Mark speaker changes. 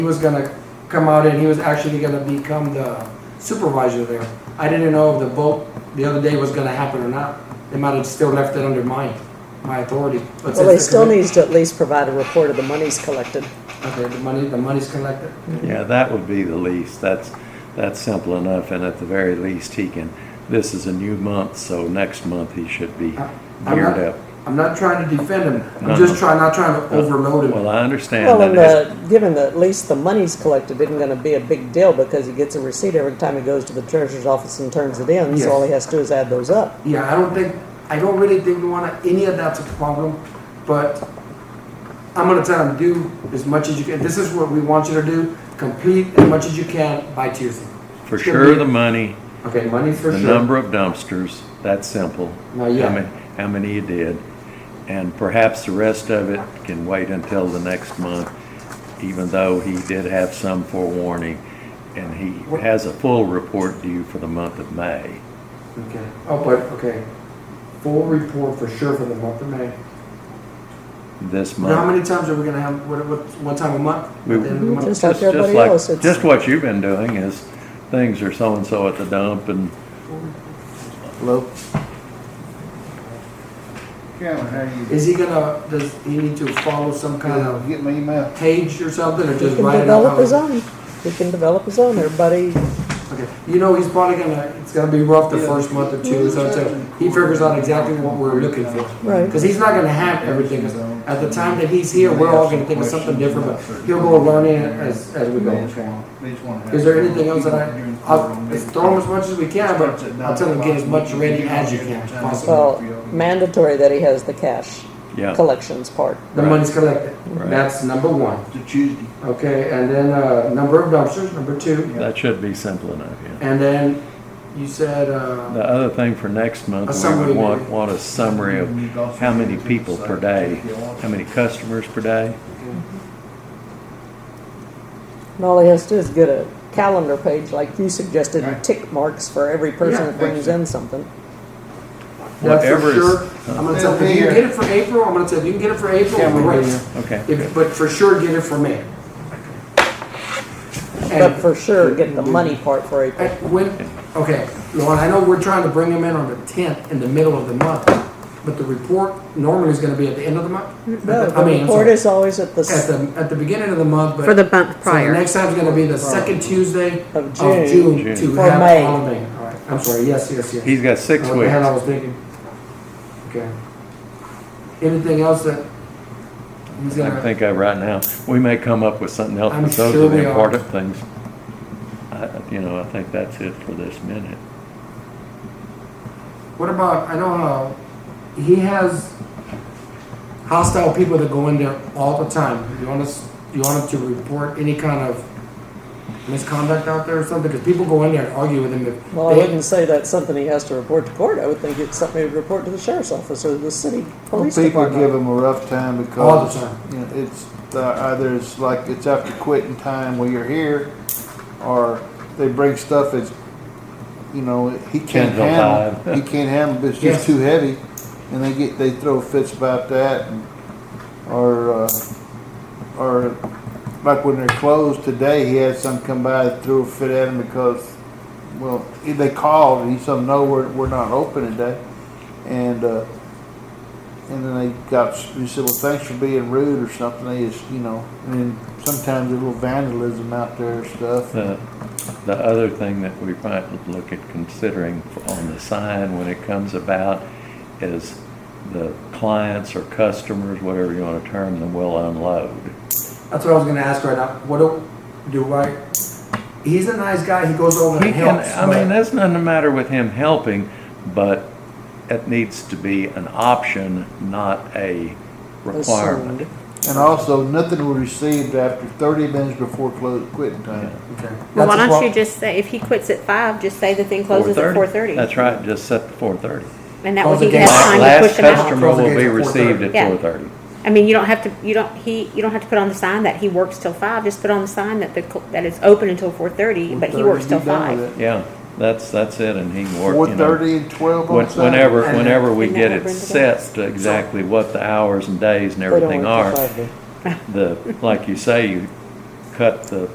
Speaker 1: He was gonna come out and he was actually gonna become the supervisor there. I didn't know if the vote the other day was gonna happen or not. They might have still left it under my, my authority. But
Speaker 2: Well, they
Speaker 1: since the
Speaker 2: still
Speaker 1: commi-
Speaker 2: needs to at least provide a report of the monies collected.
Speaker 1: Okay, the money, the money's collected.
Speaker 3: Yeah, that would be the least. That's, that's simple enough, and at the very least, he can, this is a new month, so next month he should be
Speaker 1: I- I'm
Speaker 3: geared
Speaker 1: not-
Speaker 3: up.
Speaker 1: I'm not trying to defend him.
Speaker 3: No,
Speaker 1: I'm just
Speaker 3: no.
Speaker 1: trying, not trying to overload him.
Speaker 3: Well, I understand
Speaker 2: Well, and
Speaker 3: that
Speaker 2: the, given that at least the monies collected isn't gonna be a big deal because he gets a receipt every time he goes to the treasurer's office and turns it in,
Speaker 1: Yes.
Speaker 2: so all he has to do is add those up.
Speaker 1: Yeah, I don't think, I don't really think we want to, any of that's a problem, but I'm gonna tell them, do as much as you can. This is what we want you to do, complete as much as you can by Tuesday.
Speaker 2: uh,
Speaker 3: it's for
Speaker 1: it's gonna
Speaker 3: sure
Speaker 1: be-
Speaker 3: the money,
Speaker 1: Okay, money's for
Speaker 3: the
Speaker 1: sure.
Speaker 3: number of dumpsters, that's simple.
Speaker 1: Now, yeah.
Speaker 3: How many, how many you did, and perhaps the rest of it can wait until the next month, even though he did have some forewarning, and he
Speaker 1: What-
Speaker 3: has a full report due for the month of May.
Speaker 1: Okay, oh, but, okay, full report for sure for the month of May.
Speaker 3: This month.
Speaker 1: Now, how many times are we gonna have, what, what, one time a month?
Speaker 3: We-
Speaker 1: At the end of the month?
Speaker 2: Just like
Speaker 3: just
Speaker 2: everybody
Speaker 3: like-
Speaker 2: else, it's-
Speaker 3: Just what you've been doing is, things are so-and-so at the dump and,
Speaker 1: Hello?
Speaker 4: Cameron, how you?
Speaker 1: Is he gonna, does he need to follow some kind of
Speaker 4: Get my email.
Speaker 1: page or something, or
Speaker 2: He
Speaker 1: just
Speaker 2: can
Speaker 1: write it out?
Speaker 2: develop
Speaker 1: how
Speaker 2: his
Speaker 1: it-
Speaker 2: own. He can develop his own. Everybody,
Speaker 1: Okay, you know, he's probably gonna, it's gonna be rough the
Speaker 4: Yeah.
Speaker 1: first month or two, so until he figures out exactly what we're looking for.
Speaker 2: right.
Speaker 1: Cause he's not gonna have everything, 'Cause at the time that he's here, we're all gonna think of something different, but he'll go learning as, as we go. Is there anything else that I, I'll, let's throw him as much as we can, but I'll tell him get as much ready as you can, possible.
Speaker 2: Well, mandatory that he has the cash
Speaker 3: yeah.
Speaker 2: collections part.
Speaker 1: The money's collected,
Speaker 3: Right.
Speaker 1: that's number one,
Speaker 4: To Tuesday.
Speaker 1: okay, and then, uh, number of dumpsters, number two,
Speaker 3: That should be simple enough, yeah.
Speaker 1: and then you said, uh,
Speaker 3: The other thing for next
Speaker 1: A
Speaker 3: month, we
Speaker 1: summary,
Speaker 3: would want,
Speaker 1: maybe.
Speaker 3: want a summary of how many people per day, how many customers per day.
Speaker 2: And all he has to do is get a calendar page like you suggested, and
Speaker 4: Right.
Speaker 2: tick marks for every person
Speaker 1: Yeah,
Speaker 2: that brings in something.
Speaker 1: That's
Speaker 3: Whatever
Speaker 1: for
Speaker 3: is-
Speaker 1: sure. I'm gonna tell, if you can get it for April, I'm gonna tell, if you can get it for April,
Speaker 4: Yeah, we'll
Speaker 1: great.
Speaker 4: do that.
Speaker 3: Okay.
Speaker 1: If, but for sure, get it for May.
Speaker 2: But
Speaker 1: And,
Speaker 2: for sure, get the money part for April.
Speaker 1: and when, okay, Lauren, I know we're trying to bring them in on the tenth in the middle of the month, but the report normally is gonna be at the end of the month.
Speaker 2: No,
Speaker 1: I
Speaker 2: the
Speaker 1: mean, I'm
Speaker 2: report
Speaker 1: sorry,
Speaker 2: is always at the,
Speaker 1: At
Speaker 2: s-
Speaker 1: the, at the beginning of the month, but.
Speaker 5: For the month
Speaker 1: So the
Speaker 5: prior.
Speaker 1: next time's gonna be the second Tuesday
Speaker 2: Of
Speaker 1: of
Speaker 2: June.
Speaker 1: June
Speaker 3: June.
Speaker 1: to
Speaker 2: For
Speaker 1: have
Speaker 2: May.
Speaker 1: all of May. All right, I'm sorry, yes, yes, yes.
Speaker 3: He's got six
Speaker 1: What the hell I
Speaker 3: weeks.
Speaker 1: was thinking. Okay. Anything else that he's
Speaker 3: I
Speaker 1: gonna,
Speaker 3: think of right now, we may come up with something else,
Speaker 1: I'm
Speaker 3: but those
Speaker 1: sure
Speaker 3: are
Speaker 1: we
Speaker 3: the
Speaker 1: are.
Speaker 3: important things. I, you know, I think that's it for this minute.
Speaker 1: what about, I know how, he has hostile people that go in there all the time. You want us, you want him to report any kind of misconduct out there or something? Because people go in there and argue with him if
Speaker 2: well, I
Speaker 1: they.
Speaker 2: wouldn't say that's something he has to report to court. I would think it's something he'd report to the sheriff's office or the city police
Speaker 4: People give
Speaker 2: department.
Speaker 4: them a rough time
Speaker 1: All the
Speaker 4: because,
Speaker 1: time.
Speaker 4: you know, it's, the- either it's like it's after quitting time while you're here, or they bring stuff that's, you know, he
Speaker 3: Ten
Speaker 4: can't
Speaker 3: till
Speaker 4: handle.
Speaker 3: five.
Speaker 4: He can't handle, but it's
Speaker 1: Yes.
Speaker 4: just too heavy, and they get, they throw fits about that, and, or, uh, or like when they're closed today, he had some come by and threw a fit at him because, well, he- they called and he said, no, we're, we're not open today. And, uh, and then they got, he said, well, thanks for being rude or something. They just, you know, and then sometimes there's a little vandalism out there and stuff.
Speaker 3: The, the other thing that we might look at considering on the sign when it comes about is the clients or customers, whatever you want to term them, will unload.
Speaker 1: That's what I was gonna ask right now. What do, do I, he's a nice guy, he goes over
Speaker 3: He
Speaker 1: and
Speaker 3: can,
Speaker 1: helps.
Speaker 3: I
Speaker 1: but-
Speaker 3: mean, that's nothing the matter with him helping, but it needs to be an option, not a requirement.
Speaker 2: Assumed.
Speaker 4: And also, nothing was received after 30 minutes before close, quitting time.
Speaker 1: Okay.
Speaker 5: Well, why
Speaker 1: That's a
Speaker 5: don't
Speaker 1: pro-
Speaker 5: you just say, if he quits at five, just say the thing closes at
Speaker 3: 4:30?
Speaker 5: four thirty?
Speaker 3: That's right, just set the four thirty.
Speaker 5: And that
Speaker 1: Close
Speaker 5: way
Speaker 1: the
Speaker 5: he
Speaker 1: gate.
Speaker 5: has
Speaker 1: Last-
Speaker 5: time to push
Speaker 3: Last
Speaker 5: him out.
Speaker 3: customer will be
Speaker 1: Close the gates at
Speaker 3: received at
Speaker 5: 4:30.
Speaker 3: four thirty.
Speaker 5: I mean, you don't have to, you don't, he, you don't have to put on the sign that he works till five, just put on the sign that the, cl- that it's open until four thirty, but he
Speaker 4: 4:30,
Speaker 5: works
Speaker 4: be
Speaker 5: till
Speaker 4: done with
Speaker 5: five.
Speaker 4: it.
Speaker 3: Yeah, that's, that's it, and he can work, you know.
Speaker 4: 4:30 and 12 on
Speaker 3: When-
Speaker 4: Saturday.
Speaker 3: Whenever,
Speaker 1: And-
Speaker 3: whenever we
Speaker 5: And
Speaker 3: get
Speaker 5: that
Speaker 3: it
Speaker 5: brings it
Speaker 3: set to exactly what the hours and days and everything
Speaker 2: They don't
Speaker 3: are,
Speaker 2: work till five,
Speaker 3: the, like you say, you cut the